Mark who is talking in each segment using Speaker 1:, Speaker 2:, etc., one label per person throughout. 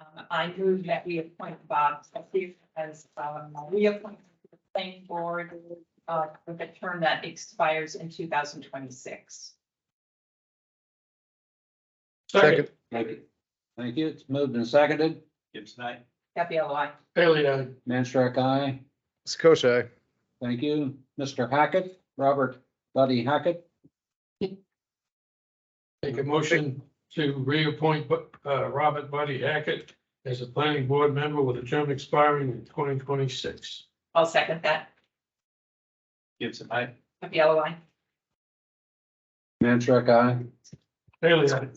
Speaker 1: Um, I move that we appoint Bob Sessions as, um, reappointed to the planning board, uh, with a term that expires in two thousand twenty-six.
Speaker 2: Second,
Speaker 3: Thank you. Thank you. It's moved and seconded.
Speaker 4: Gibbs and I.
Speaker 1: Happy LOI.
Speaker 4: Bailey, I.
Speaker 3: Manstrack, aye.
Speaker 2: Sakosha,
Speaker 3: Thank you. Mr. Hackett, Robert Buddy Hackett.
Speaker 4: Make a motion to reappoint uh, Robert Buddy Hackett as a planning board member with a term expiring in twenty twenty-six.
Speaker 1: I'll second that.
Speaker 4: Gibbs and I.
Speaker 1: Happy LOI.
Speaker 3: Manstrack, aye.
Speaker 4: Bailey, I.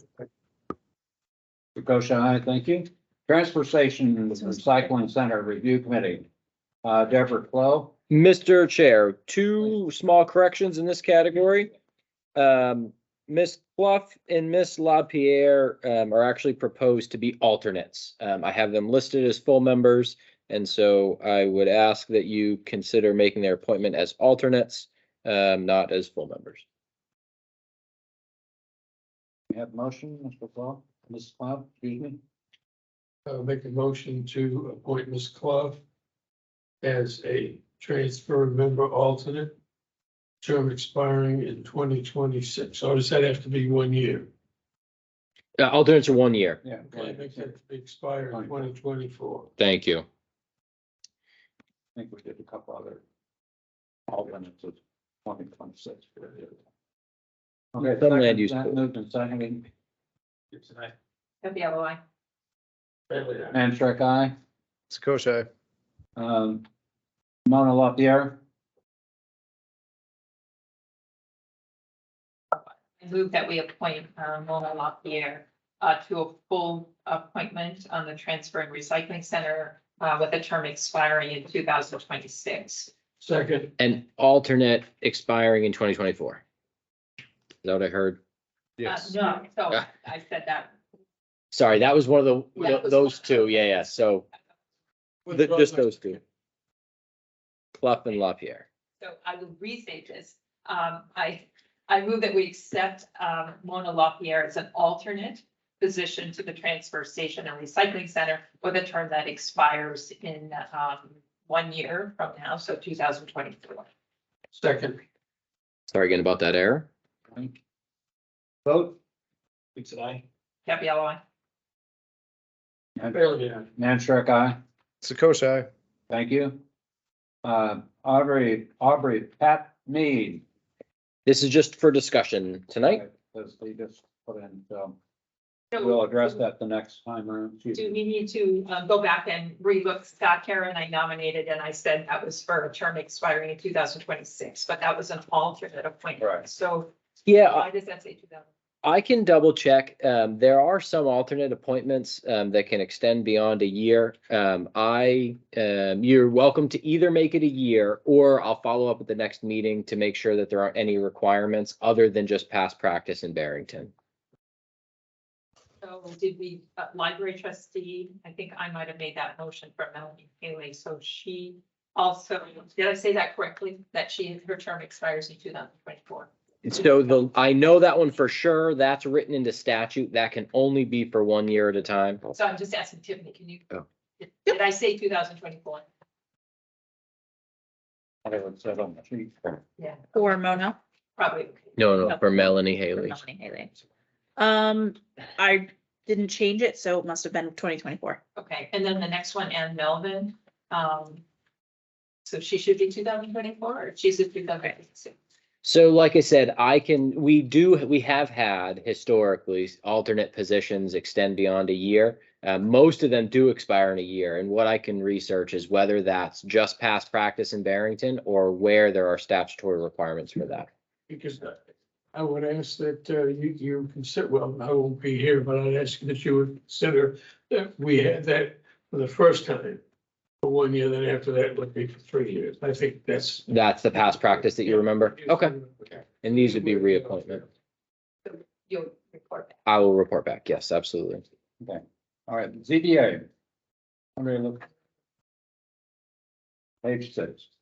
Speaker 3: Kokoschka, aye. Thank you. Transfer Station and Recycling Center Review Committee. Uh, Deborah Clow.
Speaker 5: Mr. Chair, two small corrections in this category. Um, Ms. Bluff and Ms. LaPierre, um, are actually proposed to be alternates. Um, I have them listed as full members, and so I would ask that you consider making their appointment as alternates, um, not as full members.
Speaker 3: You have a motion, Mr. Clow? Mrs. Clow, excuse me.
Speaker 4: Uh, make a motion to appoint Ms. Clough as a transfer member alternate, term expiring in twenty twenty-six. Or does that have to be one year?
Speaker 5: Uh, alternates are one year.
Speaker 3: Yeah.
Speaker 4: Okay, make that expire in twenty twenty-four.
Speaker 5: Thank you.
Speaker 3: I think we did a couple other. alternates of twenty twenty-six. Okay.
Speaker 5: Some land
Speaker 3: second,
Speaker 5: use
Speaker 3: that
Speaker 5: board.
Speaker 3: Moved and seconded.
Speaker 4: Gibbs and I.
Speaker 1: Happy LOI.
Speaker 4: Bailey, I.
Speaker 3: Manstrack, aye.
Speaker 2: Sakosha,
Speaker 3: Um, Mona LaPierre,
Speaker 1: I move that we appoint uh, Mona LaPierre uh, to a full appointment on the Transfer and Recycling Center uh, with a term expiring in two thousand twenty-six. Uh,
Speaker 4: Second,
Speaker 5: And alternate expiring in twenty twenty-four. Is that what I heard?
Speaker 2: yes.
Speaker 1: No, so I said that.
Speaker 5: Sorry, that was one of
Speaker 1: That
Speaker 5: the,
Speaker 1: was-
Speaker 5: those two. Yeah, yeah. So Th-
Speaker 4: Withdraw
Speaker 5: Just
Speaker 4: my-
Speaker 5: those two. Clough and LaPierre.
Speaker 1: So I will restate this. Um, I, I move that we accept um, Mona LaPierre as an alternate position to the Transfer Station and Recycling Center with a term that expires in um, one year from now, so two thousand twenty-four.
Speaker 4: second.
Speaker 5: Sorry again about that error.
Speaker 3: Frank. Vote,
Speaker 4: Gibbs and I.
Speaker 1: Happy LOI.
Speaker 4: Bailey, I.
Speaker 3: Nantrick, aye.
Speaker 2: Sakosha,
Speaker 3: Thank you. Uh, Aubrey, Aubrey Pat Mead.
Speaker 5: This is just for discussion tonight.
Speaker 3: As they just put in, so we'll address that the next time around. She's-
Speaker 1: Do we need to uh, go back and relook Scott Karen I nominated and I said that was for a term expiring in two thousand twenty-six, but that was an alternate appointment.
Speaker 3: Right.
Speaker 1: So
Speaker 5: Yeah, I-
Speaker 1: why does that say two thousand?
Speaker 5: I can double check. Um, there are some alternate appointments, um, that can extend beyond a year. Um, I, um, you're welcome to either make it a year or I'll follow up at the next meeting to make sure that there aren't any requirements other than just past practice in Barrington.
Speaker 1: So did we, uh, library trustee, I think I might have made that motion for Melanie Haley, so she also, did I say that correctly? That she, her term expires in two thousand twenty-four?
Speaker 5: So the, I know that one for sure. That's written into statute. That can only be for one year at a time.
Speaker 1: So I'm just asking Tiffany, can you?
Speaker 5: Oh.
Speaker 1: Did- Did I say two thousand twenty-four?
Speaker 3: Whatever it said on the sheet.
Speaker 1: Yeah,
Speaker 6: For Mona,
Speaker 1: probably.
Speaker 5: No, no,
Speaker 6: No.
Speaker 5: for Melanie
Speaker 6: for
Speaker 5: Haley.
Speaker 6: Melanie Haley. Um, I didn't change it, so it must have been twenty twenty-four.
Speaker 1: Okay, and then the next one, Ann Melvin. Um, so she should be two thousand twenty-four, or she's a two thousand twenty-six?
Speaker 5: So like I said, I can, we do, we have had historically alternate positions extend beyond a year. Uh, most of them do expire in a year, and what I can research is whether that's just past practice in Barrington or where there are statutory requirements for that.
Speaker 4: Because I- I would ask that uh, you, you consider, well, I won't be here, but I'd ask that you would consider that we had that for the first time. For one year, then after that it would be for three years. I think that's.
Speaker 5: That's the past practice that you remember? Okay, and these would be reappointment.
Speaker 1: You'll report that.
Speaker 5: I will report back. Yes, absolutely.
Speaker 3: All right, ZBA. Somebody look. Page six.